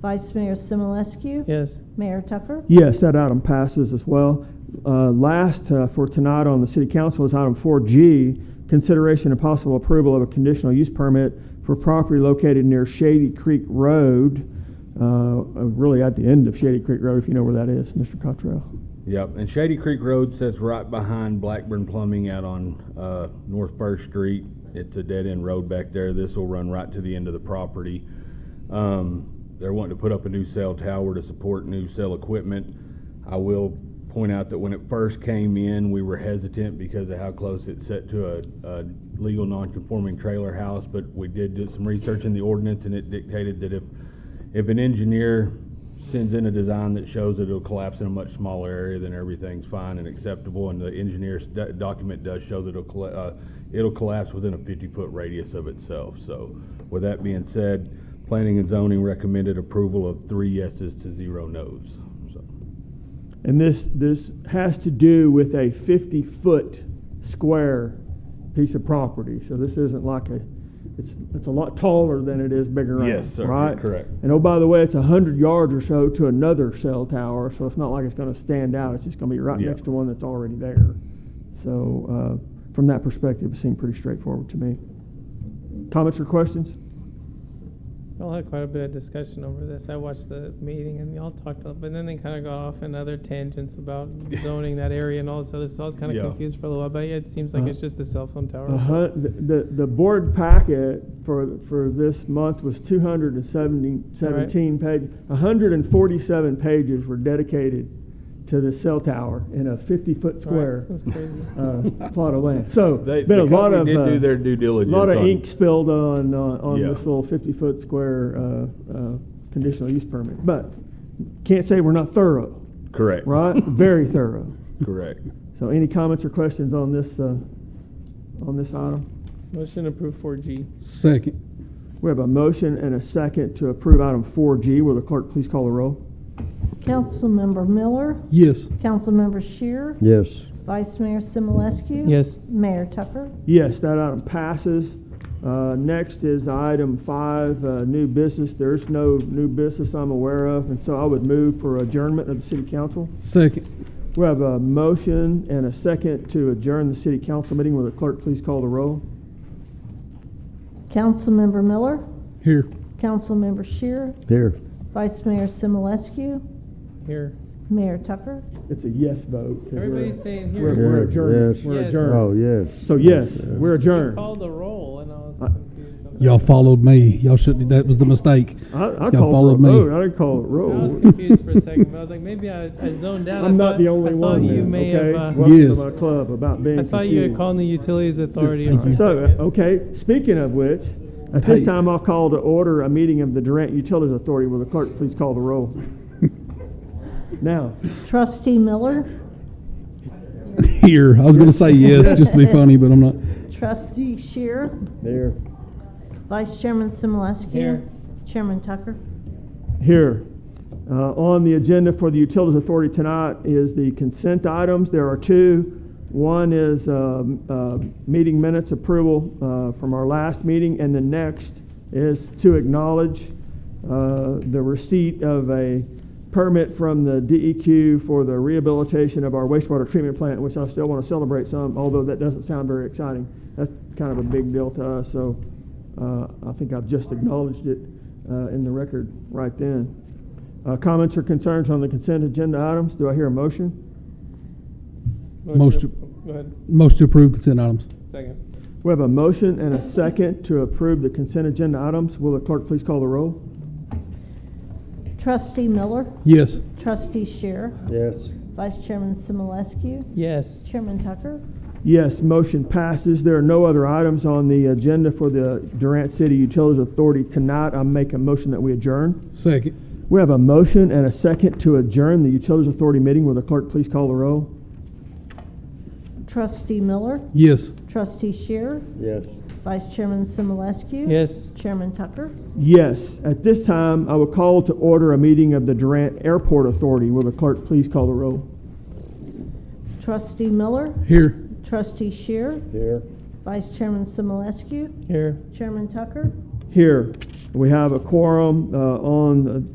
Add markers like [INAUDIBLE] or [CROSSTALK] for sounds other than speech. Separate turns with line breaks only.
Vice Mayor Simulescu.
Yes.
Mayor Tucker.
Yes, that item passes as well. Uh, Last uh, for tonight on the city council is item 4G, consideration and possible approval of a conditional use permit for property located near Shady Creek Road, uh, uh, really at the end of Shady Creek Road, if you know where that is, Mr. Cottrell.
Yep, and Shady Creek Road sits right behind Blackburn Plumbing out on uh, North First Street. It's a dead-end road back there. This will run right to the end of the property. Um, They're wanting to put up a new cell tower to support new cell equipment. I will point out that when it first came in, we were hesitant because of how close it's set to a, a legal non-conforming trailer house, but we did do some research in the ordinance, and it dictated that if, if an engineer sends in a design that shows that it'll collapse in a much smaller area, then everything's fine and acceptable, and the engineer's do- document does show that it'll, colla- uh, it'll collapse within a fifty-foot radius of itself. So with that being said, planning and zoning recommended approval of three yeses to zero nos. So,
And this, this has to do with a 50-foot square piece of property. So this isn't like a, it's, it's a lot taller than it is bigger.
Yes, sir.
Right?
Correct.
And oh, by the way, it's 100 yards or so to another cell tower, so it's not like it's going to stand out. It's just going to be right
Yeah.
next to one that's already there. So uh, from that perspective, it seemed pretty straightforward to me. Comments or questions?
Y'all had quite a bit of discussion over this. I watched the meeting and y'all talked, a- but then they kind of got off in other tangents
[LAUGHS]
about zoning that area and all this other, so I was kind
Yeah.
of confused for a little while, but yeah, it seems
Uh-huh.
like it's just a cell phone tower.
A hun- The, the- the board packet for, for this month was 270 17 pages. 147 pages were dedicated to the cell tower in a 50-foot
All right,
square
That's crazy.
uh, [LAUGHS] plot of land. So,
They,
been a
the
lot of.
company did
uh,
do their due diligence.
Lot of
on-
ink spilled on, on on
Yeah.
this little 50-foot square uh, uh, conditional use permit. But can't say we're not thorough,
[LAUGHS]
Correct.
right? Very thorough.
Correct.
So any comments or questions on this, uh, on this item?
Motion approved four G.
Second.
We have a motion and a second to approve item 4G. Will the clerk please call the roll?
Councilmember Miller.
Yes.
Councilmember Shear.
Yes.
Vice Mayor Simulescu.
Yes.
Mayor Tucker.
Yes, that item passes. Uh, Next is item 5, uh, new business. There's no new business I'm aware of, and so I would move for adjournment of the city council.
Second.
We have a motion and a second to adjourn the city council meeting. Will the clerk please call the roll?
Councilmember Miller.
Here.
Councilmember Shear.
Here.
Vice Mayor Simulescu.
Here.
Mayor Tucker.
It's a yes vote. 'cause we're-
Everybody's saying
We're
here.
we're
Yeah,
adjourned.
yes.
We're
Yes.
adjourned.
Oh, yes.
So yes, we're adjourned.
Call the roll and I was
Uh,
confused. on that.
Y'all followed me. Y'all shouldn't. That was the mistake.
I, I
Y'all
called
followed
for a
me.
vote. I didn't call it roll.
I was
[LAUGHS]
confused for a second, but I was like, maybe I, I zoned out. I
I'm
thought-
not the only
I thought
one.
you
then,
may
okay?
have, uh,
Welcome
Yes.
to my club about being
I thought you had
confused.
called the utilities authority.
Thank
for a
you.
So,
second.
uh, okay. Speaking of which, at this
Hey.
time I'll call to order a meeting of the Durant Utilities Authority. Will the clerk please call the
[LAUGHS]
roll? now,
Trustee Miller.
[LAUGHS] Here, I was going to say yes just to be funny, but I'm not.
Trustee Shear.
There.
Vice Chairman Simulescu.
Here.
Chairman Tucker.
here uh, on the agenda for the Utilities Authority tonight is the consent items. There are two. One is um, uh, meeting minutes approval uh, from our last meeting, and the next is to acknowledge uh, the receipt of a permit from the DEQ for the rehabilitation of our wastewater treatment plant, which I still want to celebrate some, although that doesn't sound very exciting. That's kind of a big deal to us, so uh, I think I've just acknowledged it uh, in the record right then. Uh, Comments or concerns on the consent agenda items? Do I hear a motion?
Most
to- Go ahead,
Most to approve consent items.
second.
We have a motion and a second to approve the consent agenda items. Will the clerk please call the roll?
Trustee Miller.
Yes.
Trustee Shear.
Yes.
Vice Chairman Simulescu.
Yes.
Chairman Tucker.
Yes, motion passes. There are no other items on the agenda for the Durant City Utilities Authority tonight. I make a motion that we adjourn.
Second.
We have a motion and a second to adjourn the Utilities Authority meeting. Will the clerk please call the roll?
Trustee Miller.
Yes.
Trustee Shear.
Yes.
Vice Chairman Simulescu.
Yes.
Chairman Tucker.
Yes, at this time, I will call to order a meeting of the Durant Airport Authority. Will the clerk please call the roll?
Trustee Miller.
Here.
Trustee Shear.
Here.
Vice Chairman Simulescu.
Here.
Chairman Tucker.
Here, we have a quorum uh, on uh,